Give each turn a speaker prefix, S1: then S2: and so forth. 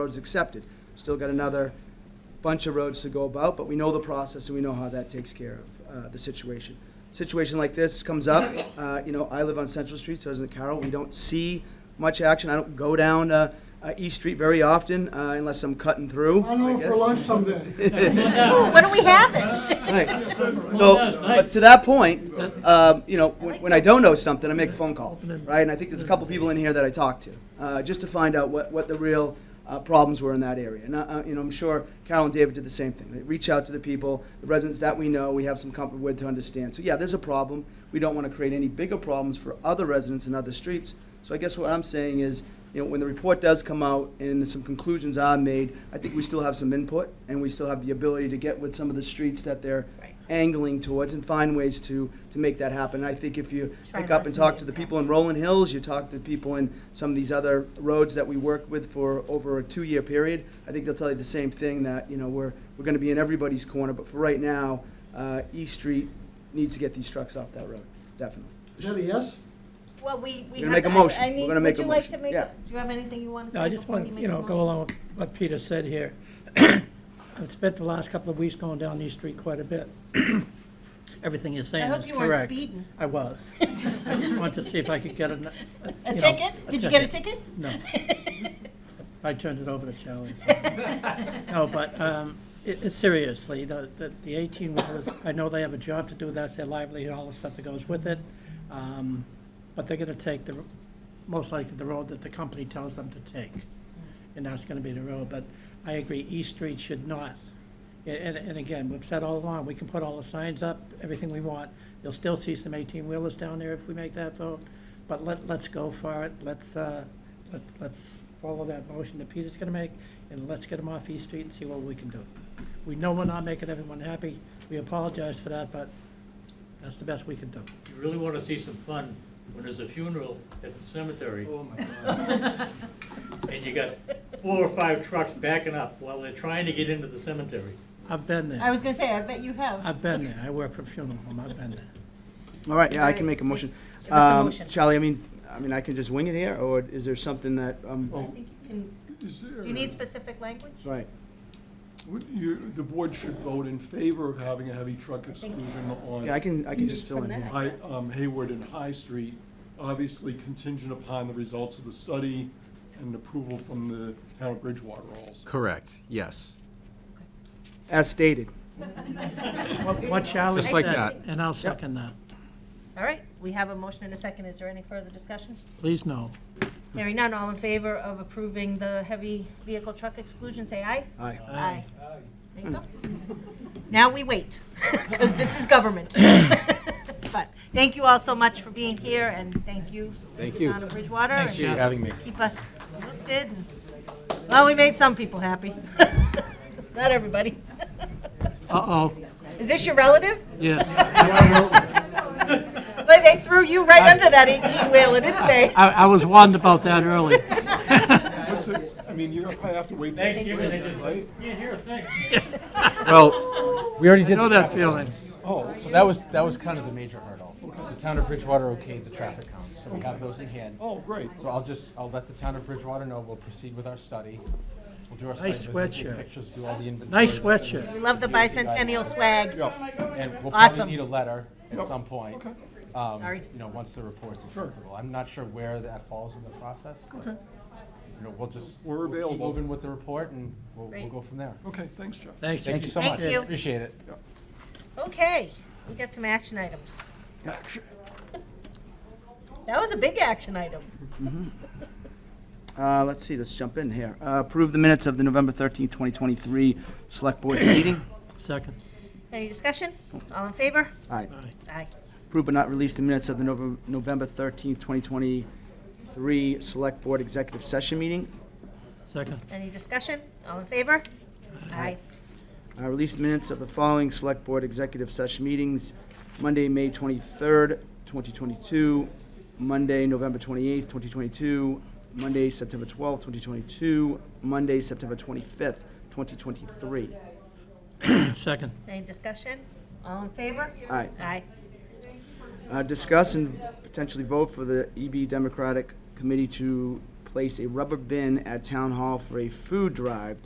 S1: roads accepted. Still got another bunch of roads to go about, but we know the process and we know how that takes care of uh, the situation. Situation like this comes up, uh, you know, I live on Central Street, so does Carroll. We don't see much action. I don't go down uh, uh, East Street very often uh, unless I'm cutting through.
S2: I'll know
S1: I
S2: for
S1: guess.
S2: lunch someday.
S3: Ooh, When are we having?
S1: Right. So, but to that point, um, you know, when, when I don't know something, I make a phone call, right? And I think there's a couple people in here that I talked to, uh, just to find out what, what the real, uh, problems were in that area. And, uh, uh, you know, I'm sure Carol and David did the same thing. They reach out to the people, the residents that we know, we have some comfort with to understand. So, yeah, there's a problem. We don't wanna create any bigger problems for other residents in other streets. So I guess what I'm saying is, you know, when the report does come out and some conclusions are made, I think we still have some input and we still have the ability to get with some of the streets that they're
S3: Right.
S1: angling towards and find ways to, to make that happen. I think if you
S3: Try
S1: pick
S3: to
S1: up and
S3: lessen the
S1: talk to the people in
S3: impact.
S1: Rolling Hills, you talk to people in some of these other roads that we worked with for over a two-year period, I think they'll tell you the same thing, that, you know, we're, we're gonna be in everybody's corner, but for right now, uh, East Street needs to get these trucks off that road, definitely.
S2: Is that a yes?
S3: Well, we, we
S1: We're gonna
S3: have
S1: make a
S3: to- I-
S1: motion.
S3: I
S1: We're
S3: need-
S1: gonna make a
S3: Would you like
S1: motion.
S3: to make,
S1: Yeah.
S3: a- do you have anything you want to
S4: No, I
S3: say
S4: just
S3: before
S4: want,
S3: he
S4: you
S3: makes a
S4: know, go
S3: motion?
S4: along with what Peter said here. I've spent the last couple of weeks going down East Street quite a bit. Everything you're saying
S3: hope
S4: is
S3: you weren't
S4: correct.
S3: speeding.
S4: I was. I just wanted to see if I could get an- a. you
S3: A
S4: know,
S3: ticket? Did you get a ticket?
S4: No. I turned it over to Charlie. No, but um, it- it's seriously, the the the 18 wheelers, I know they have a job to do, that's their livelihood, all the stuff that goes with it. um, But they're going to take the, most likely the road that the company tells them to take. And that's going to be the road, but I agree, East Street should not. And- And, and again, we've said all along, we can put all the signs up, everything we want. You'll still see some 18-wheelers down there if we make that vote, but let, let's go for it. Let's, uh, let- let's follow that motion that Peter's going to make, and let's get them off East Street and see what we can do. We know we're not making everyone happy. We apologize for that, but that's the best we can do.
S5: You really want to see some fun when there's a funeral at the cemetery. Oh, my God. And you got four or five trucks backing up while they're trying to get into the cemetery.
S4: I've been
S3: I
S4: there.
S3: was gonna say, I bet you have.
S4: I've been there. I work for a funeral home. I've been there.
S1: All right, yeah, I can make a motion.
S3: Give us a
S1: Um,
S3: motion.
S1: Charlie, I mean, I mean, I can just wing it here, or is there something that, um,
S3: I think you can-
S6: Is there?
S3: Do you need specific language?
S1: right?
S6: would you- the board should vote in favor of having a heavy truck exclusion on.
S1: Yeah, I can, I can just
S6: East
S1: fill in
S3: From
S1: here.
S3: that.
S6: High, um, Hayward and High Street, obviously contingent upon the results of the study and approval from the town of Bridgewater also.
S7: Correct, yes.
S1: As stated.
S4: What- What Charlie
S7: Just like
S4: said,
S7: that.
S4: and I'll second that.
S3: All right, we have a motion and a second. Is there any further discussion?
S4: Please no.
S3: Hearing none, all in favor of approving the heavy vehicle truck exclusion, say aye.
S1: Aye.
S3: Aye. There you go. Now we wait, because this is government. But thank you all so much for being here, and thank you.
S7: Thank
S3: to the
S7: you.
S3: Town of Bridgewater. and
S7: for having me.
S3: Keep us posted. and- Well, we made some people happy. Not everybody.
S4: Uh-oh,
S3: Is this your relative?
S4: yes.
S3: But they threw you right under that 18-wheeler, didn't they?
S4: I, I was warned about that early.
S6: What's it- I mean, you're gonna have to wait till
S5: Thanksgiving, they
S6: spring,
S5: just,
S6: right?
S5: can't hear a thing.
S7: Well, we already did,
S4: Know that feeling.
S6: Oh,
S7: so that was, that was kind of the major hurdle. The town of Bridgewater okayed the traffic counts, so we have those in hand.
S6: oh, great.
S7: So I'll just, I'll let the town of Bridgewater know, we'll proceed with our study. We'll do our site
S4: Nice
S7: visit, take
S4: sweatshirt.
S7: pictures, do all the inventory.
S4: Nice sweatshirt.
S3: We love the bicentennial swag.
S7: And we'll
S3: Awesome.
S7: probably need a letter at some point.
S6: Okay.
S7: um,
S3: Sorry.
S7: You know, once the report's
S6: Sure.
S7: acceptable. I'm not sure where that falls in the process. but,
S6: Okay.
S7: You know, we'll just.
S6: We're
S7: we'll keep
S6: available.
S7: Moving with the report and we'll, we'll
S3: Great.
S7: go from there.
S6: Okay, thanks, Jeff.
S4: Thanks,
S7: Thank you so
S3: Thank
S7: much.
S3: you.
S7: Appreciate it.
S3: Okay, we got some action items. That was a big action item.
S1: Uh, let's see, let's jump in here. Uh, approve the minutes of the November thirteenth, twenty twenty-three Select Board's meeting.
S4: Second.
S3: Any discussion? All in favor?
S1: Aye.
S4: All right.
S3: Aye.
S1: Approve but not release the minutes of the Nov- November thirteenth, twenty twenty-three Select Board Executive Session meeting.
S4: Second.
S3: Any discussion? All in favor? Aye.
S1: Uh, Release minutes of the following Select Board Executive Session meetings, Monday, May 23rd, 2022, Monday, November 28th, 2022, Monday, September 12th, 2022, Monday, September 25th, 2023.
S4: Second.
S3: Any discussion? All in favor?
S1: Aye.
S3: Aye.
S1: Uh, Discuss and potentially vote for the EB Democratic E Committee to place a rubber bin at Town Hall for a food drive